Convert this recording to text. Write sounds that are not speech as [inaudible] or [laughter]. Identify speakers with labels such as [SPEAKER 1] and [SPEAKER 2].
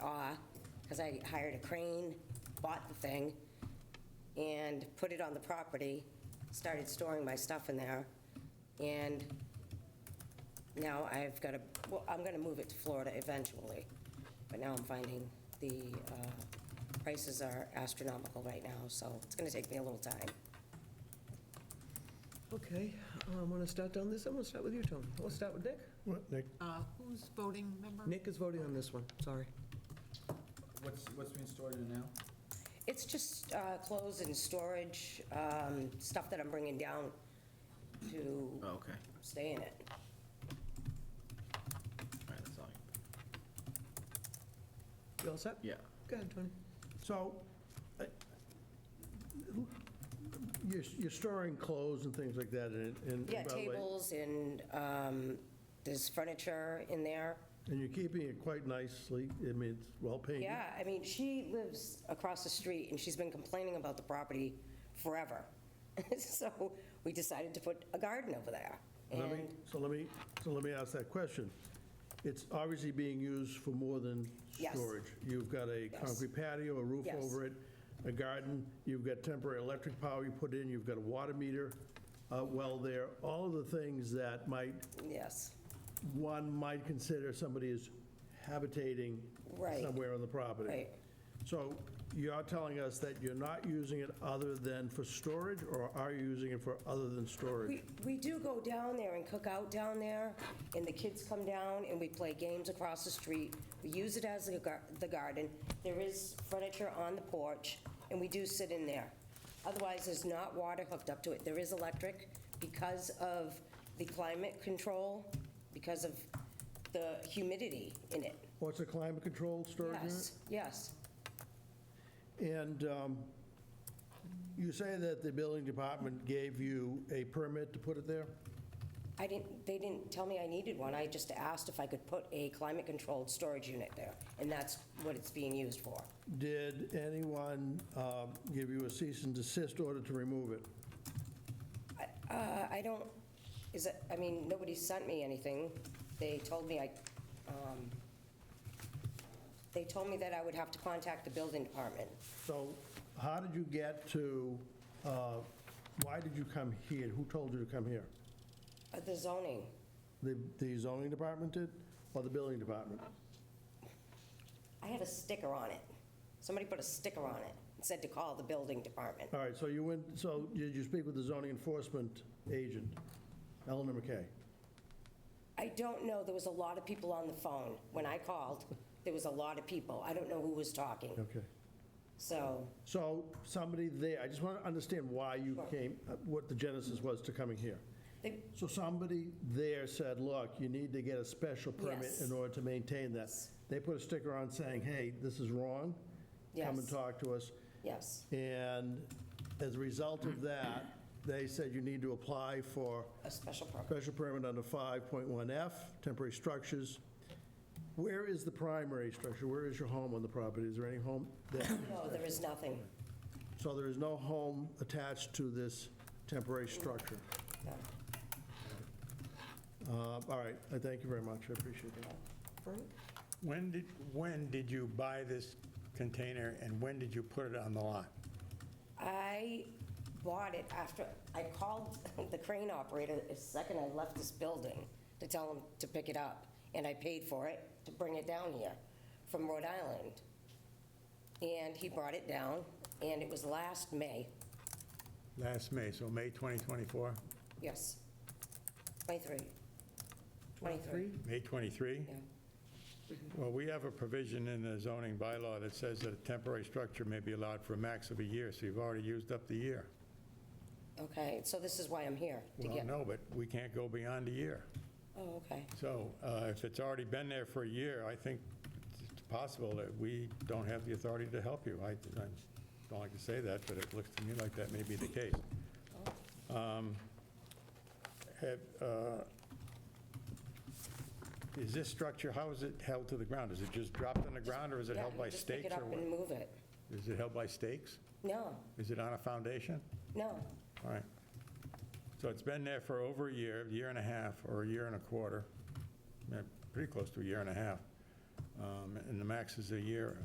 [SPEAKER 1] because I hired a crane, bought the thing, and put it on the property, started storing my stuff in there, and now I've got to, well, I'm going to move it to Florida eventually, but now I'm finding the uh, prices are astronomical right now, so it's going to take me a little time.
[SPEAKER 2] Okay, I'm going to start down this, I'm going to start with you, Tom. We'll start with Nick.
[SPEAKER 3] What, Nick?
[SPEAKER 4] Uh, Who's voting member?
[SPEAKER 2] Nick is voting on this one, sorry.
[SPEAKER 5] What's, what's being stored in now?
[SPEAKER 1] It's just uh, clothes and storage, um, stuff that I'm bringing down to
[SPEAKER 5] Oh, okay.
[SPEAKER 1] stay in it.
[SPEAKER 5] All right, that's all.
[SPEAKER 2] You all set?
[SPEAKER 5] Yeah.
[SPEAKER 2] Go ahead, Tony.
[SPEAKER 3] So, I- you're, you're storing clothes and things like that in, it, and.
[SPEAKER 1] Yeah,
[SPEAKER 3] by the way,
[SPEAKER 1] tables and um, there's furniture in there.
[SPEAKER 3] And you're keeping it quite nicely, I mean, it's well painted.
[SPEAKER 1] Yeah, I mean, she lives across the street, and she's been complaining about the property forever. [laughs] So we decided to put a garden over there.
[SPEAKER 3] Let me,
[SPEAKER 1] And
[SPEAKER 3] so let me, so let me ask that question. It's obviously being used for more than
[SPEAKER 1] Yes.
[SPEAKER 3] storage. You've got a
[SPEAKER 1] Yes.
[SPEAKER 3] concrete patio, a roof
[SPEAKER 1] Yes.
[SPEAKER 3] over it, a garden, you've got temporary electric power you put in, you've got a water meter uh, well there, all of the things that might,
[SPEAKER 1] Yes,
[SPEAKER 3] one might consider somebody is habitating
[SPEAKER 1] Right.
[SPEAKER 3] somewhere on the property.
[SPEAKER 1] Right.
[SPEAKER 3] So you're telling us that you're not using it other than for storage, or are you using it for other than storage?
[SPEAKER 1] we we do go down there and cook out down there, and the kids come down, and we play games across the street. We use it as a gar- the garden. There is furniture on the porch, and we do sit in there. Otherwise, there's not water hooked up to it. There is electric because of the climate control, because of the humidity in it.
[SPEAKER 3] What's a climate controlled storage unit?
[SPEAKER 1] Yes, yes.
[SPEAKER 3] And um, you say that the building department gave you a permit to put it there?
[SPEAKER 1] I didn't, they didn't tell me I needed one. I just asked if I could put a climate-controlled storage unit there, and that's what it's being used for.
[SPEAKER 3] Did anyone um, give you a cease and desist order to remove it?
[SPEAKER 1] Uh, I don't, is it, I mean, nobody sent me anything. They told me I, um, they told me that I would have to contact the building department.
[SPEAKER 3] So how did you get to, uh, why did you come here? Who told you to come here?
[SPEAKER 1] Uh, The zoning,
[SPEAKER 3] The the zoning department did, or the building department?
[SPEAKER 1] I had a sticker on it. Somebody put a sticker on it and said to call the building department.
[SPEAKER 3] All right, so you went, so did you speak with the zoning enforcement agent, Eleanor McKay?
[SPEAKER 1] I don't know, there was a lot of people on the phone. When I called, there was a lot of people. I don't know who was talking,
[SPEAKER 3] Okay.
[SPEAKER 1] so.
[SPEAKER 3] So somebody there, I just want to understand why you came, uh, what the genesis was to coming here.
[SPEAKER 1] They-
[SPEAKER 3] So somebody there said, look, you need to get a special permit
[SPEAKER 1] Yes.
[SPEAKER 3] in order to maintain that. They put a sticker on saying, hey, this is wrong. Come and
[SPEAKER 1] Yes.
[SPEAKER 3] talk to us.
[SPEAKER 1] Yes,
[SPEAKER 3] And as a result of that, they said you need to apply for
[SPEAKER 1] a special permit.
[SPEAKER 3] special permit under 5.1F, temporary structures. Where is the primary structure? Where is your home on the property? Is there any home there?
[SPEAKER 1] No, there is nothing.
[SPEAKER 3] So there is no home attached to this temporary structure?
[SPEAKER 1] No.
[SPEAKER 3] Uh, All right, I thank you very much, I appreciate that.
[SPEAKER 2] Frank?
[SPEAKER 6] When did, when did you buy this container and when did you put it on the lot?
[SPEAKER 1] I bought it after, I called [laughs] the crane operator the second I left this building to tell him to pick it up, and I paid for it to bring it down here from Rhode Island. And he brought it down, and it was last May,
[SPEAKER 6] Last May, so May 2024?
[SPEAKER 1] yes, 23. 23?
[SPEAKER 6] May 23?
[SPEAKER 1] Yeah.
[SPEAKER 6] Well, we have a provision in the zoning bylaw that says that a temporary structure may be allowed for a max of a year, so you've already used up the year.
[SPEAKER 1] Okay, so this is why I'm here, to
[SPEAKER 6] Well,
[SPEAKER 1] get,
[SPEAKER 6] no, but we can't go beyond a year.
[SPEAKER 1] oh, okay.
[SPEAKER 6] So uh, if it's already been there for a year, I think it's possible that we don't have the authority to help you. I I don't like to say that, but it looks to me like that may be the case. Um, have, uh, Is this structure, how is it held to the ground? Is it just dropped on the ground, or is it
[SPEAKER 1] Yeah,
[SPEAKER 6] held by
[SPEAKER 1] just pick
[SPEAKER 6] stakes?
[SPEAKER 1] it
[SPEAKER 6] or
[SPEAKER 1] up and
[SPEAKER 6] what?
[SPEAKER 1] move it.
[SPEAKER 6] Is it held by stakes?
[SPEAKER 1] No,
[SPEAKER 6] Is it on a foundation?
[SPEAKER 1] no,
[SPEAKER 6] All right. So it's been there for over a year, year and a half, or a year and a quarter, yeah, pretty close to a year and a half. Um, And the max is a year.